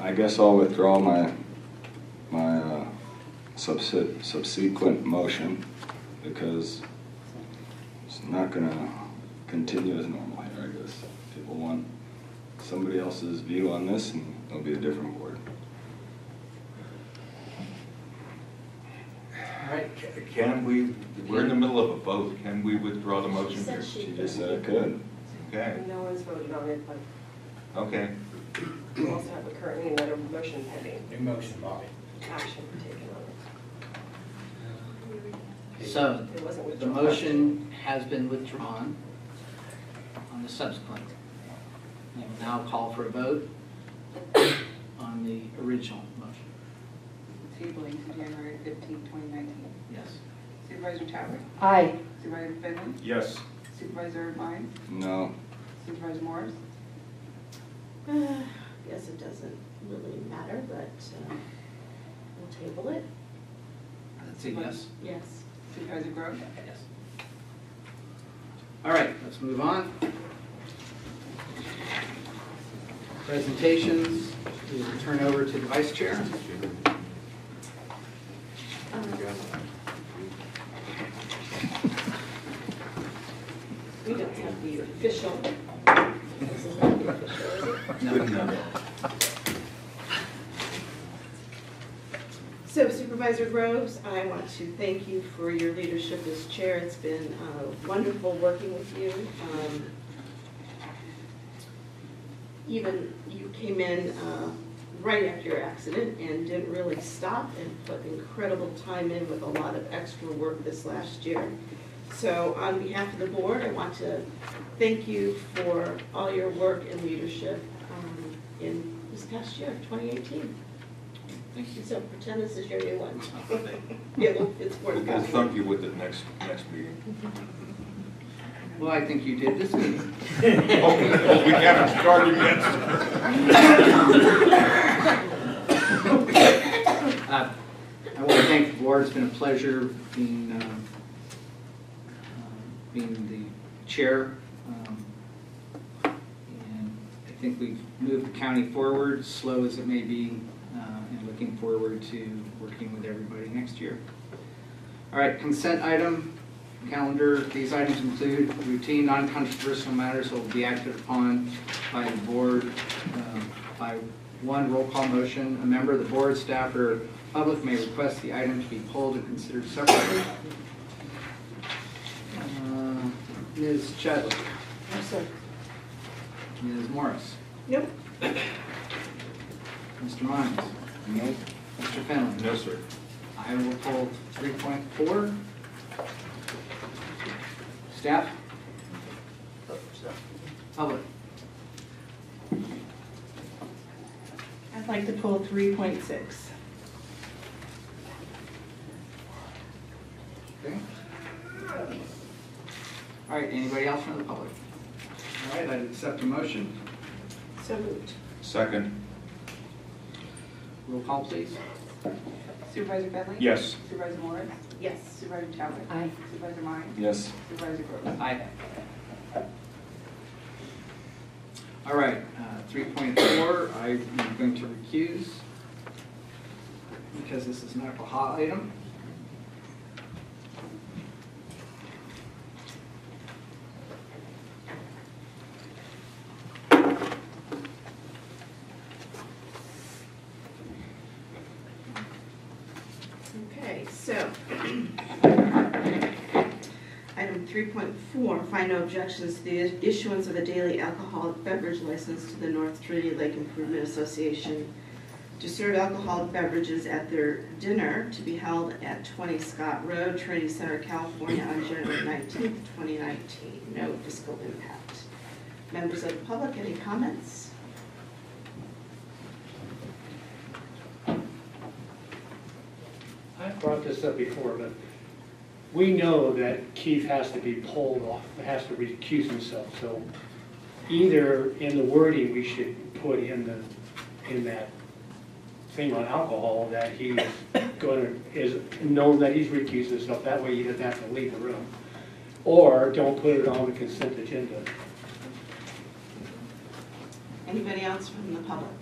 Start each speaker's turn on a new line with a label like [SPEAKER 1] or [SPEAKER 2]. [SPEAKER 1] I guess I'll withdraw my, my uh, subse- subsequent motion because it's not gonna continue as normal here, I guess. People want somebody else's view on this and it'll be a different board.
[SPEAKER 2] All right, ca- can we, we're in the middle of a vote, can we withdraw the motion here?
[SPEAKER 3] She
[SPEAKER 1] She just said it could.
[SPEAKER 2] Okay,
[SPEAKER 3] No one's voted on it, but
[SPEAKER 2] okay.
[SPEAKER 3] we also have a currently another motion pending,
[SPEAKER 4] New motion, Bobby.
[SPEAKER 3] action taken on
[SPEAKER 5] So,
[SPEAKER 3] it. It wasn't
[SPEAKER 5] the
[SPEAKER 3] withdrawn.
[SPEAKER 5] motion has been withdrawn on the subsequent. I will now call for a vote on the original motion.
[SPEAKER 6] Tabling to January 15, 2019.
[SPEAKER 5] Yes.
[SPEAKER 6] Supervisor Chadwick?
[SPEAKER 7] Aye.
[SPEAKER 6] Supervisor Finley?
[SPEAKER 2] Yes.
[SPEAKER 6] Supervisor Vines?
[SPEAKER 1] No,
[SPEAKER 6] Supervisor Morris?
[SPEAKER 8] Uh, I guess it doesn't really matter,
[SPEAKER 3] uh,
[SPEAKER 8] but um, we'll table it.
[SPEAKER 5] That's a yes?
[SPEAKER 8] Yes.
[SPEAKER 6] Supervisor Groves?
[SPEAKER 5] Yes. All right, let's move on. Presentations, we will turn over to the vice chair.
[SPEAKER 3] We don't have the official. This is not the official, is it?
[SPEAKER 2] Good enough.
[SPEAKER 8] So Supervisor Groves, I want to thank you for your leadership as chair. It's been uh, wonderful working with you. Um, Even you came in uh, right after your accident and didn't really stop and put incredible time in with a lot of extra work this last year. So on behalf of the board, I want to thank you for all your work and leadership um, in this past year, 2018.
[SPEAKER 5] Thank you.
[SPEAKER 8] So pretend this is your new one. It will- It's worth
[SPEAKER 2] We'll
[SPEAKER 8] it.
[SPEAKER 2] thump you with it next, next meeting.
[SPEAKER 5] Well, I think you did this meeting.
[SPEAKER 2] Oh, we haven't started yet.
[SPEAKER 5] Uh, I want to thank the board, it's been a pleasure being, um, um, being the chair. Um, And I think we've moved the county forward, slow as it may be, uh, and looking forward to working with everybody next year. All right, consent item, calendar, these items include routine, non-controversial matters that will be acted upon by the board um, by one roll call motion. A member of the board, staff, or public may request the item to be pulled and considered separately. Uh, Ms. Chadwick?
[SPEAKER 8] No, sir.
[SPEAKER 5] Ms. Morris?
[SPEAKER 8] Nope.
[SPEAKER 5] Mr. Mines?
[SPEAKER 1] nope.
[SPEAKER 5] Mr. Finley?
[SPEAKER 2] No, sir.
[SPEAKER 5] I will pull three point four. Staff? Public.
[SPEAKER 6] I'd like to pull 3.6.
[SPEAKER 5] Okay. All right, anybody else from the public? All right, I'd accept a motion.
[SPEAKER 8] So moved.
[SPEAKER 2] Second.
[SPEAKER 5] Roll call, please.
[SPEAKER 6] Supervisor Finley?
[SPEAKER 2] Yes.
[SPEAKER 6] Supervisor Morris?
[SPEAKER 8] Yes.
[SPEAKER 6] Supervisor Chadwick?
[SPEAKER 7] Aye.
[SPEAKER 6] Supervisor Vines?
[SPEAKER 1] Yes,
[SPEAKER 6] Supervisor Groves?
[SPEAKER 5] Aye. All right, uh, three point four, I'm going to recuse because this is not a hot item.
[SPEAKER 8] Okay, so. Item 3.4, final objections to the issuance of a daily alcoholic beverage license to the North Trinity Lake Improvement Association to serve alcoholic beverages at their dinner to be held at 20 Scott Road, Trinity Center, California, on January 19th, 2019. No fiscal impact. Members of the public, any comments?
[SPEAKER 9] I brought this up before, but we know that Keith has to be pulled off, has to recuse himself, so either in the wording, we should put in the, in that thing on alcohol, that he is gonna, is known that he's recused himself, that way he doesn't have to leave the room. Or don't put it on the consent agenda.
[SPEAKER 8] Anybody else from the public?